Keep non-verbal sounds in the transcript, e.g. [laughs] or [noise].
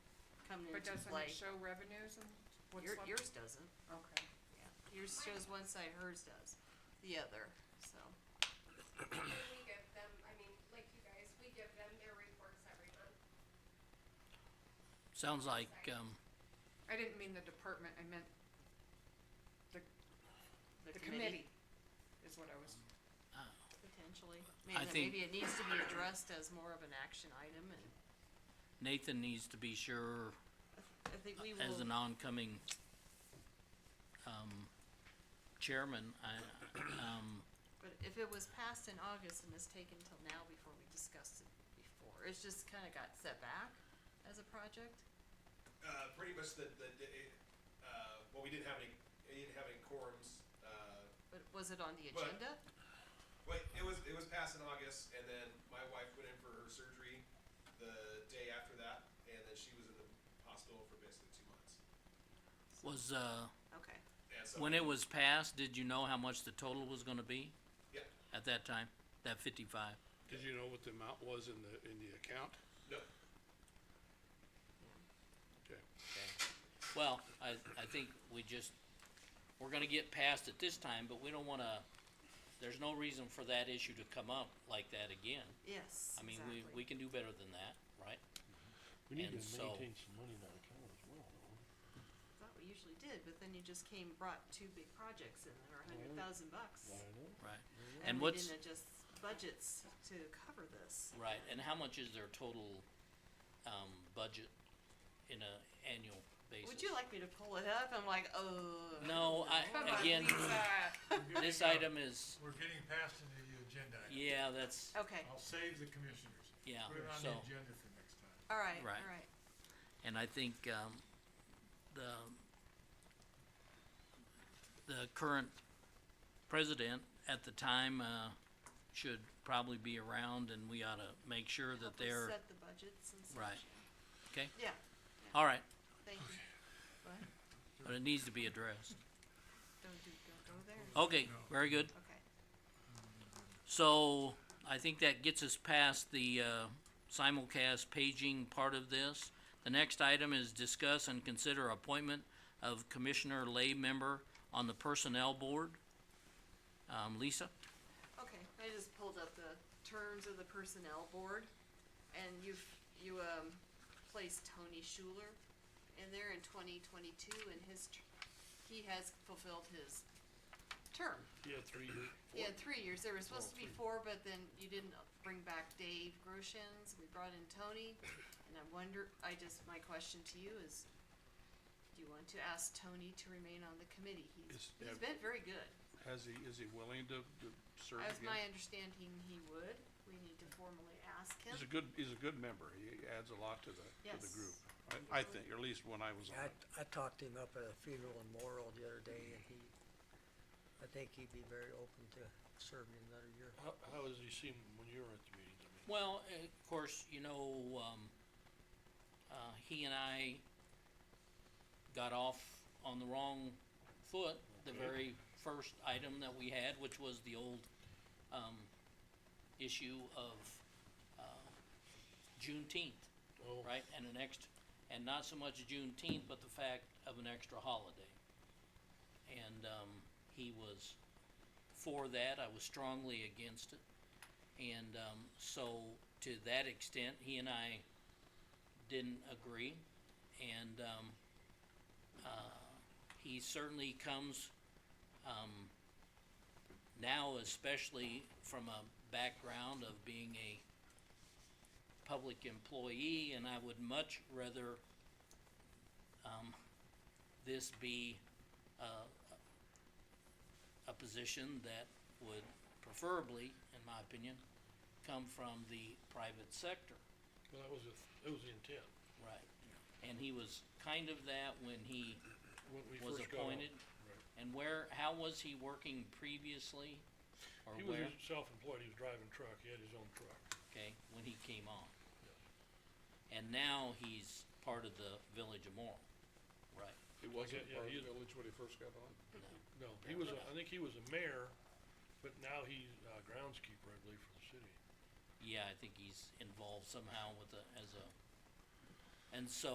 coming But into doesn't play. it show revenues and what's Your, left? yours doesn't, Okay. yeah, yours shows one side, hers does, the other, so, We give them, I mean, like you guys, we give them their reports every month. Sounds like, um, I didn't mean the department, I meant the the committee, committee, is what I was, potentially. I Maybe, that- think- maybe it needs to be addressed as more of an action item, and Nathan needs to be sure I think we will. as an oncoming, um, chairman, I, um, But if it was passed in August and is taken till now before we discussed it before, it's just kinda got set back as a project? Uh, pretty much the, the, the it, uh, well, we didn't have any, we didn't have any quorums, uh, But was it on the But- agenda? but it was, it was passed in August, and then my wife went in for her surgery the day after that, and then she was in the hospital for basically two months. was, uh, Okay, And so, when it was passed, did you know how much the total was gonna be yeah, at that time? That fifty-five? Did you know what the amount was in the, in the account? no, Okay. Well, I, I think we just, we're gonna get past it this time, but we don't wanna, there's no reason for that issue to come up like that again. yes, I mean, exactly. we, we can do better than that, right? We need And to so- maintain some money in our account as well, don't we? Thought we usually did, but then you just came, brought two big projects in that are a hundred Well, thousand bucks. I know. Right. And we what's, didn't adjust budgets to cover this. right, and how much is their total, um, budget in a annual basis? Would you like me to pull it up? I'm like, oh. No, [laughs] come I, on, again, [laughs] Lisa. this item is, uh, We're getting past into the agenda. item. yeah, that's, Okay, I'll save the commissioners. yeah, Put it on so. the agenda for next time. alright, alright. Right. And I think, um, the, the current president at the time, uh, should probably be around and we ought to make sure Help us that they're, Set the budgets and such. Right. okay, Yeah, all right, thank you. What? but it needs to be addressed. Don't do, don't go there. Okay, very good. Okay. So I think that gets us past the uh, simulcast paging part of this. The next item is discuss and consider appointment of commissioner lay member on the personnel board. Um, Lisa? Okay, I just pulled up the terms of the personnel board, and you've, you, um, placed Tony Schuler in there in twenty twenty-two, and his, tr- he has fulfilled his term. Yeah, three, He had three years, there was supposed to be four, but then you didn't bring back Dave Groshans, we brought in Tony, and I wonder, I just, my question to you is, do you want to ask Tony to remain on the committee? He's, Is- he's have- been very good. has he, is he willing to, to serve As my again? understanding, he would. We need to formally ask him. He's a good, he's a good member, he adds a lot to the, to the Yes. group, I, I think, or at least when I was on it. I, I talked him up at a funeral in Morrill the other day and he, I think he'd be very open to serving another year. How, how has he seemed when you were at the meetings, I mean? Well, uh, of course, you know, um, uh, he and I got off on the wrong foot, the very first item that we had, which was the old, um, issue of, uh, Juneteenth, Oh. right? And an ext- and not so much Juneteenth, but the fact of an extra holiday. And, um, he was for that, I was strongly against it. And um, so, to that extent, he and I didn't agree. And um, uh, he certainly comes um, now, especially from a background of being a public employee, and I would much rather um, this be uh, a position that would preferably, in my opinion, come from the private sector. Well, that was, the- that was the intent, Right. And he was kind of that when he when we was first got on. appointed. And where, how was he working previously? Or He where, was self-employed, he was driving truck, he had his own truck. okay, when he came on? And now he's part of the Village of Morrill, right? He wasn't yeah, part of he the is- village when he first got on? No, he was, a- I think he was a mayor, but now he's uh groundskeeper, I believe, for the city. Yeah, I think he's involved somehow with the, as a, and so